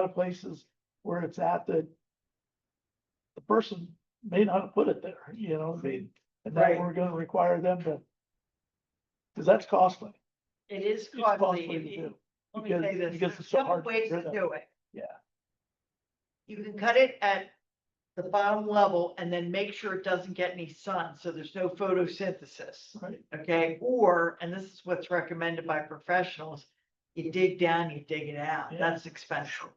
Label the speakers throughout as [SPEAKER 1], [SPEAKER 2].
[SPEAKER 1] lot of places where it's at that the person may not have put it there, you know, I mean, and then
[SPEAKER 2] Right.
[SPEAKER 1] we're gonna require them to. Cause that's costly.
[SPEAKER 2] It is
[SPEAKER 1] It's costly
[SPEAKER 2] costly.
[SPEAKER 1] to
[SPEAKER 2] if you-
[SPEAKER 1] do.
[SPEAKER 2] Let me
[SPEAKER 1] because-
[SPEAKER 2] say this,
[SPEAKER 1] because
[SPEAKER 2] there's
[SPEAKER 1] it's
[SPEAKER 2] a
[SPEAKER 1] so hard
[SPEAKER 2] couple
[SPEAKER 1] to
[SPEAKER 2] ways
[SPEAKER 1] get
[SPEAKER 2] to
[SPEAKER 1] it.
[SPEAKER 2] do it.
[SPEAKER 1] Yeah.
[SPEAKER 2] You can cut it at the bottom level and then make sure it doesn't get any sun, so there's no photosynthesis.
[SPEAKER 1] Right.
[SPEAKER 2] Okay, or, and this is what's recommended by professionals, you dig down, you dig it out.
[SPEAKER 1] Yeah.
[SPEAKER 2] That's expensive.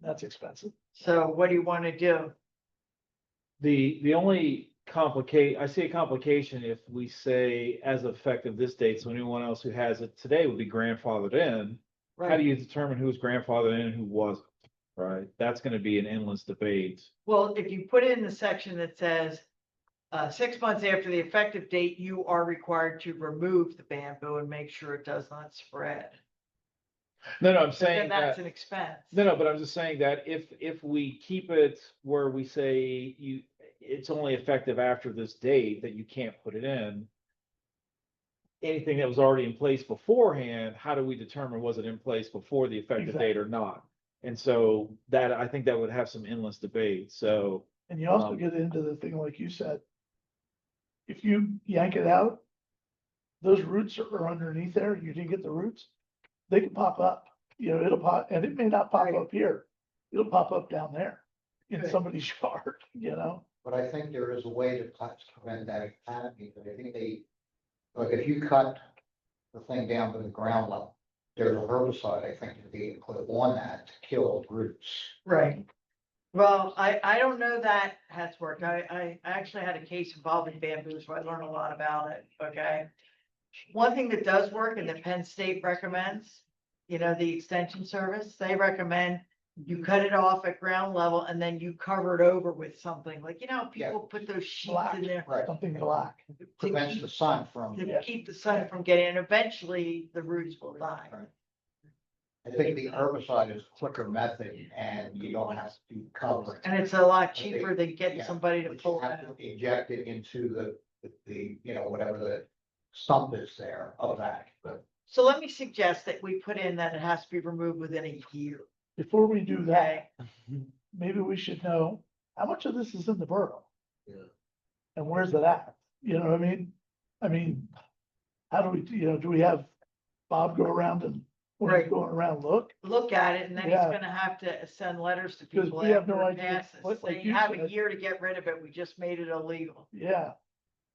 [SPEAKER 1] That's expensive.
[SPEAKER 2] So what do you want to do?
[SPEAKER 3] The, the only complicate, I see a complication if we say as of effective this date, so anyone else who has it today would be grandfathered in. How do
[SPEAKER 2] Right,
[SPEAKER 3] you determine who's grandfathered in and who wasn't? Right, that's gonna be an endless debate.
[SPEAKER 2] well, if you put in the section that says, uh, six months after the effective date, you are required to remove the bamboo and make sure it does not spread.
[SPEAKER 3] No, no, I'm
[SPEAKER 2] So then
[SPEAKER 3] saying that,
[SPEAKER 2] That's an expense.
[SPEAKER 3] no, no, but I'm just saying that if, if we keep it where we say you, it's only effective after this date that you can't put it in. Anything that was already in place beforehand, how do we determine was it in place before the effective date or not? And so that, I think that would have some endless debate, so.
[SPEAKER 1] And you also
[SPEAKER 3] Um,
[SPEAKER 1] get into the thing like you said. If you yank it out, those roots are- are underneath there, you didn't get the roots, they can pop up, you know, it'll pop, and it may not pop
[SPEAKER 2] Right.
[SPEAKER 1] up here. It'll pop up down there in
[SPEAKER 2] Right.
[SPEAKER 1] somebody's yard, you know,
[SPEAKER 4] But I think there is a way to cut, prevent that canopy, but I think they, like, if you cut the thing down to the ground level, there's a herbicide, I think, to be put on that to kill roots.
[SPEAKER 2] Right. Well, I, I don't know that has worked. I, I actually had a case involving bamboo, so I learned a lot about it, okay? One thing that does work and that Penn State recommends, you know, the extension service, they recommend you cut it off at ground level and then you cover it over with something, like, you know,
[SPEAKER 4] Yeah.
[SPEAKER 2] people put those sheets
[SPEAKER 1] Black.
[SPEAKER 2] in there
[SPEAKER 4] Right,
[SPEAKER 1] something black.
[SPEAKER 2] to
[SPEAKER 4] prevents
[SPEAKER 2] keep-
[SPEAKER 4] the sun from,
[SPEAKER 2] to keep the sun from getting, and eventually the roots will die.
[SPEAKER 4] I think the herbicide is quicker method and you don't have to do cover.
[SPEAKER 2] And it's a lot cheaper than getting
[SPEAKER 4] Yeah,
[SPEAKER 2] somebody to
[SPEAKER 4] But you
[SPEAKER 2] pull it
[SPEAKER 4] have
[SPEAKER 2] out.
[SPEAKER 4] to inject it into the, the, you know, whatever the stump is there of that, but.
[SPEAKER 2] So let me suggest that we put in that it has to be removed within a year,
[SPEAKER 1] Before we do that,
[SPEAKER 2] okay?
[SPEAKER 1] maybe we should know how much of this is in the borough.
[SPEAKER 4] Yeah.
[SPEAKER 1] And where's it at? You know what I mean? I mean, how do we, you know, do we have Bob go around and, when he's
[SPEAKER 2] Right.
[SPEAKER 1] going around, look?
[SPEAKER 2] Look at it and then he's
[SPEAKER 1] Yeah.
[SPEAKER 2] gonna have to send letters to
[SPEAKER 1] 'Cause
[SPEAKER 2] people
[SPEAKER 1] we have
[SPEAKER 2] after
[SPEAKER 1] no
[SPEAKER 2] it
[SPEAKER 1] idea
[SPEAKER 2] passes,
[SPEAKER 1] what- like
[SPEAKER 2] saying,
[SPEAKER 1] you
[SPEAKER 2] have a
[SPEAKER 1] said.
[SPEAKER 2] year to get rid of it, we just made it illegal.
[SPEAKER 1] Yeah.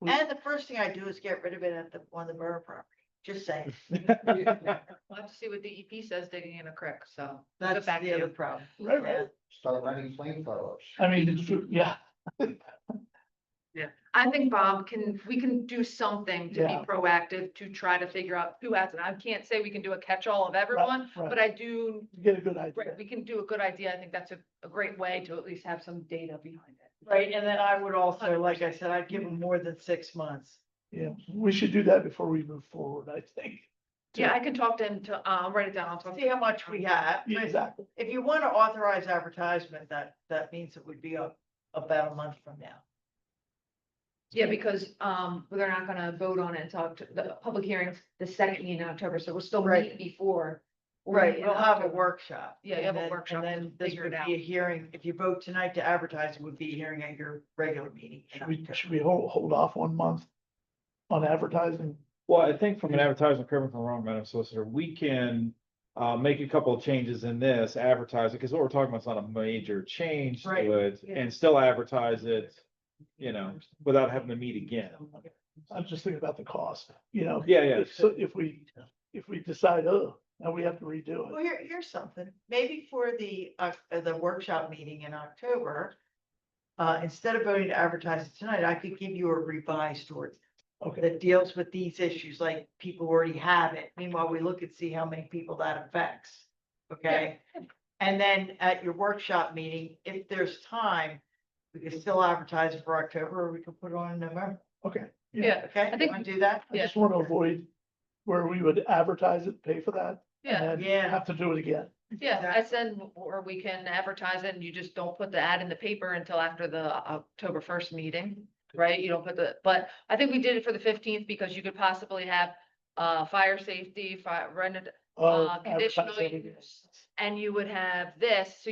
[SPEAKER 1] We-
[SPEAKER 2] And the first thing I do is get rid of it at the, on the borough property, just saying,
[SPEAKER 5] We'll have to see what the EP says digging in a creek, so. we'll
[SPEAKER 2] that's
[SPEAKER 5] get back to
[SPEAKER 2] the other
[SPEAKER 5] you.
[SPEAKER 2] problem.
[SPEAKER 1] Right,
[SPEAKER 2] Yeah.
[SPEAKER 1] right.
[SPEAKER 4] start running flamethrowers.
[SPEAKER 1] I mean, it's true, yeah,
[SPEAKER 5] I think Bob can, we can do something to
[SPEAKER 1] Yeah.
[SPEAKER 5] be proactive to try to figure out who has it. I can't say we can do a catch-all of everyone,
[SPEAKER 1] right.
[SPEAKER 5] but I do,
[SPEAKER 1] You get a good
[SPEAKER 5] right,
[SPEAKER 1] idea.
[SPEAKER 5] we can do a good idea. I think that's a, a great way to at least have some data behind it.
[SPEAKER 2] Right, and then I would also, like I said, I'd give
[SPEAKER 1] Mm-hmm.
[SPEAKER 2] them more than six months.
[SPEAKER 1] Yeah, we should do that before we move forward, I think.
[SPEAKER 5] Yeah, I can talk to him to, uh, I'll write it down. I'll talk to
[SPEAKER 2] See how much we have.
[SPEAKER 1] Yeah, Exactly.
[SPEAKER 2] If you wanna authorize advertisement, that, that means it would be a, about a month from now.
[SPEAKER 5] Yeah, because, um, they're not gonna vote on it until Oct- the public hearings, the second in October, so we'll still
[SPEAKER 2] Right.
[SPEAKER 5] meet before. we'll meet
[SPEAKER 2] Right,
[SPEAKER 5] in
[SPEAKER 2] we'll have a
[SPEAKER 5] October.
[SPEAKER 2] workshop.
[SPEAKER 5] Yeah,
[SPEAKER 2] and
[SPEAKER 5] have a
[SPEAKER 2] then-
[SPEAKER 5] workshop
[SPEAKER 2] And then
[SPEAKER 5] to
[SPEAKER 2] this
[SPEAKER 5] figure
[SPEAKER 2] would
[SPEAKER 5] it
[SPEAKER 2] be a
[SPEAKER 5] out.
[SPEAKER 2] hearing, if you vote tonight to advertise, it would be a hearing at your regular meeting. in
[SPEAKER 1] Should we,
[SPEAKER 2] October.
[SPEAKER 1] should we hold, hold off one month on advertising?
[SPEAKER 3] Well, I think from an advertising, correct me if I'm wrong, Madam Solicitor, we can uh, make a couple of changes in this advertising, because what we're talking about is not a major change
[SPEAKER 2] Right,
[SPEAKER 3] to it,
[SPEAKER 5] yeah.
[SPEAKER 3] and still advertise it, you know, without having to meet again.
[SPEAKER 1] I'm just thinking about the cost, you know?
[SPEAKER 3] Yeah, yeah.
[SPEAKER 1] If So if we, if we decide, oh, now we have to redo
[SPEAKER 2] Well,
[SPEAKER 1] it.
[SPEAKER 2] here, here's something, maybe for the, uh, uh, the workshop meeting in October, uh, instead of voting to advertise it tonight, I could give you a revised ordinance
[SPEAKER 1] Okay,
[SPEAKER 2] that deals with these issues, like people already have it. Meanwhile, we look and see how many people that affects, okay? And then at your workshop meeting, if there's time, we can still advertise it for October, or we could put it on in November,
[SPEAKER 1] okay.
[SPEAKER 5] Yeah,
[SPEAKER 2] okay?
[SPEAKER 5] I
[SPEAKER 2] You
[SPEAKER 5] think-
[SPEAKER 2] wanna do that?
[SPEAKER 1] I
[SPEAKER 5] Yeah.
[SPEAKER 1] just want to avoid where we would advertise it, pay for that.
[SPEAKER 5] yeah.
[SPEAKER 1] And
[SPEAKER 2] Yeah.
[SPEAKER 1] then have to do it again.
[SPEAKER 5] Yeah, I said, or we can advertise it and you just don't put the ad in the paper until after the uh, October first meeting, right? You don't put the, but I think we did it for the fifteenth because you could possibly have uh, fire safety, fire, rented,
[SPEAKER 1] Oh,
[SPEAKER 5] Uh, conditional
[SPEAKER 1] advertise it again.
[SPEAKER 5] use. and you would have this, so